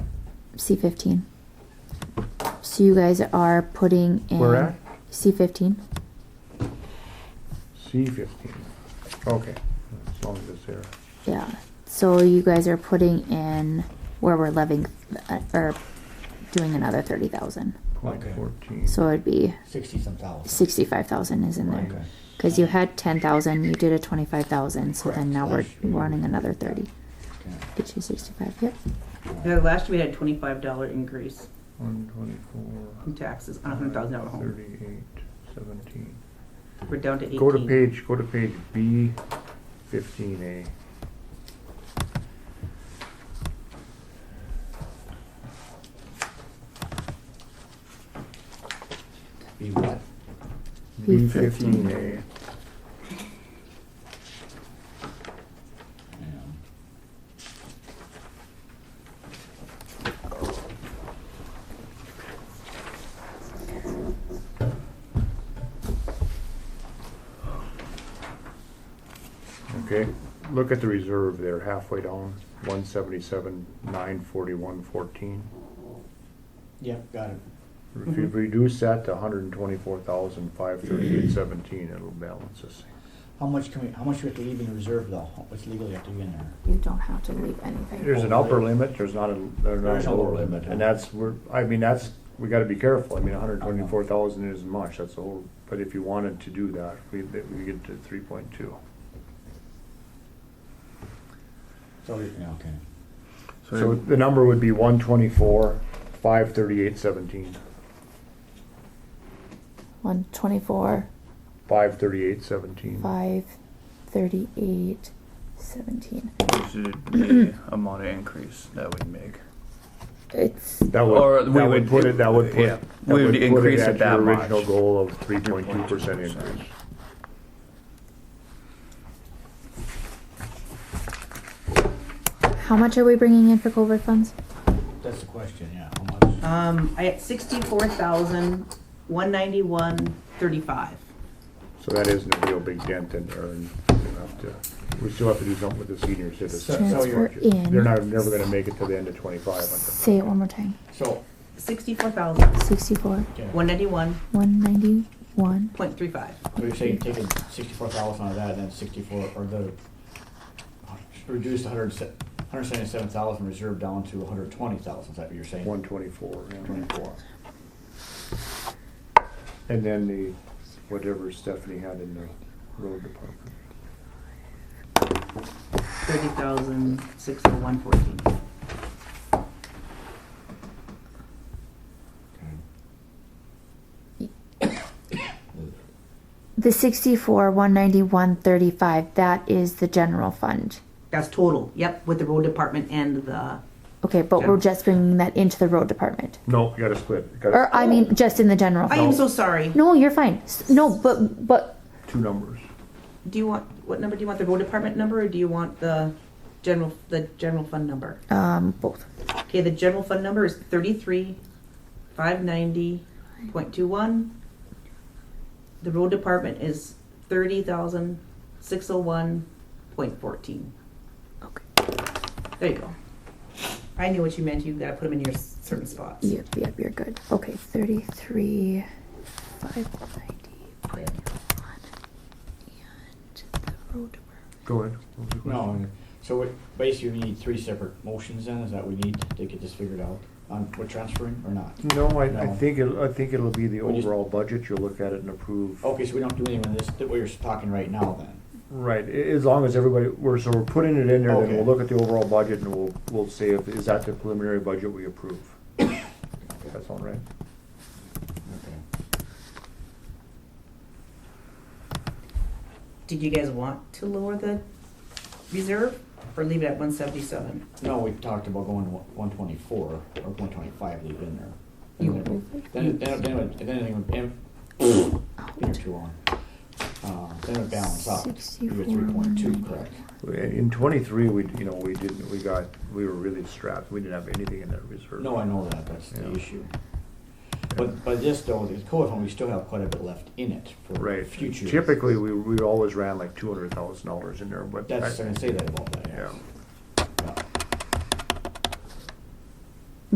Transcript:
C fifteen. So you guys are putting in. Where at? C fifteen. C fifteen. Okay, as long as it's there. Yeah. So you guys are putting in where we're levying, uh, or doing another thirty thousand. Point Okay. fourteen. So it'd be sixty some thousand. sixty-five thousand is in there. Okay. Cause you had ten thousand, you did a twenty-five thousand, so Correct. then now we're Last year. running another thirty. Okay. Get you sixty-five, yep. Yeah, last year we had a twenty-five dollar increase One twenty-four. in taxes on a hundred thousand dollar home. Thirty-eight, seventeen. We're down to eighteen. Go to page, go to page B fifteen A. Be what? B fifteen A. Um, Okay, look at the reserve there halfway down, one seventy-seven, nine forty-one, fourteen. Yep, got it. If Mm-hmm. you reduce that to hundred and twenty-four thousand, five thirty-eight, seventeen, it'll balance this thing. How much can we, how much do we have to leave in reserve though? What's legally have to leave in there? You don't have to leave anything. There's an upper limit, there's not a, there's not There's a no lower lower limit, limit, and huh? that's, we're, I mean, that's, we gotta be careful, I mean, hundred and twenty-four thousand isn't much, that's the whole, but if you wanted to do that, we, we get to three point two. So, we- yeah, okay. So the number would be one twenty-four, five thirty-eight, seventeen, One twenty-four, five thirty-eight, seventeen. five, thirty-eight, seventeen. This would be amount of increase that we'd make. It's, That Or would, we that would would- put it, that would put. yeah, that we would put it increase at it that your much. Original goal of three point two percent 3.2%. increase. how much are we bringing in for COVID funds? That's the question, yeah, how much? Um, I had sixty-four thousand, one ninety-one, thirty-five. So that isn't a real big dent in there, and we have to, we still have to do something with the senior So- citizens. so Transfer you're- in. They're not, never gonna make it to the end of twenty-five. Say it one more time. So, Sixty-four thousand, Sixty-four, okay, one ninety-one, one ninety-one. point three five. so you're saying taking sixty-four thousand out of that, and then sixty-four, or the, reduced hundred, hundred seventy-seven thousand reserve down to hundred twenty thousand, is that what you're saying? One twenty-four, Twenty-four. and then the, whatever Stephanie had in the road department. Thirty thousand six hundred one fourteen. The sixty-four, one ninety-one, thirty-five, that is the general fund. That's total, yep, with the road department and the, Okay, but we're just bringing that into the road department. No, you gotta split, you gotta- Or, I mean, just in the general Oh. I fund. am so sorry. No, you're fine. S- No, but, but two numbers. Do you want, what number, do you want the road department number or do you want the general, the general fund number? Um, both. Okay, the general fund number is thirty-three, five ninety, point two one. The road department is thirty thousand, six oh one, point fourteen. Okay. There you go. I knew what you meant, you gotta put them in your s- certain spots. Yep, yep, you're good. Okay, 33, 590, Okay. and the road department. Go ahead. No, and so what, basically we need three separate motions then, is that we need to get this figured out, on, what transferring or not? No, I, I No. think, it'll- I think it'll be the We just- overall budget, you'll look at it and approve. Okay, so we don't do anything with this, that we're talking right now then? Right, a- as long as everybody, we're, so we're putting it in there, then we'll Okay. look at the overall budget and we'll, we'll say if, is that the preliminary budget we approve? That's all right. Okay. Did you guys want to lower the reserve or leave it at one seventy-seven? No, we talked about going to one twenty-four or one twenty-five leave in there. You- And Then, then, then, it- then anything would, been there too long. Uh, then it would balance out, you were three point two, correct? In twenty-three, we, you know, we didn't, we got, we were really strapped, we didn't have anything in that reserve. No, I know that, that's the Yeah. issue. But, but this though, the code fund, we still have quite a bit left in it for Right, future. typically, we, we always ran like two hundred thousand dollars in there, but. That's, I- I'm gonna say that about that, yes. Yeah.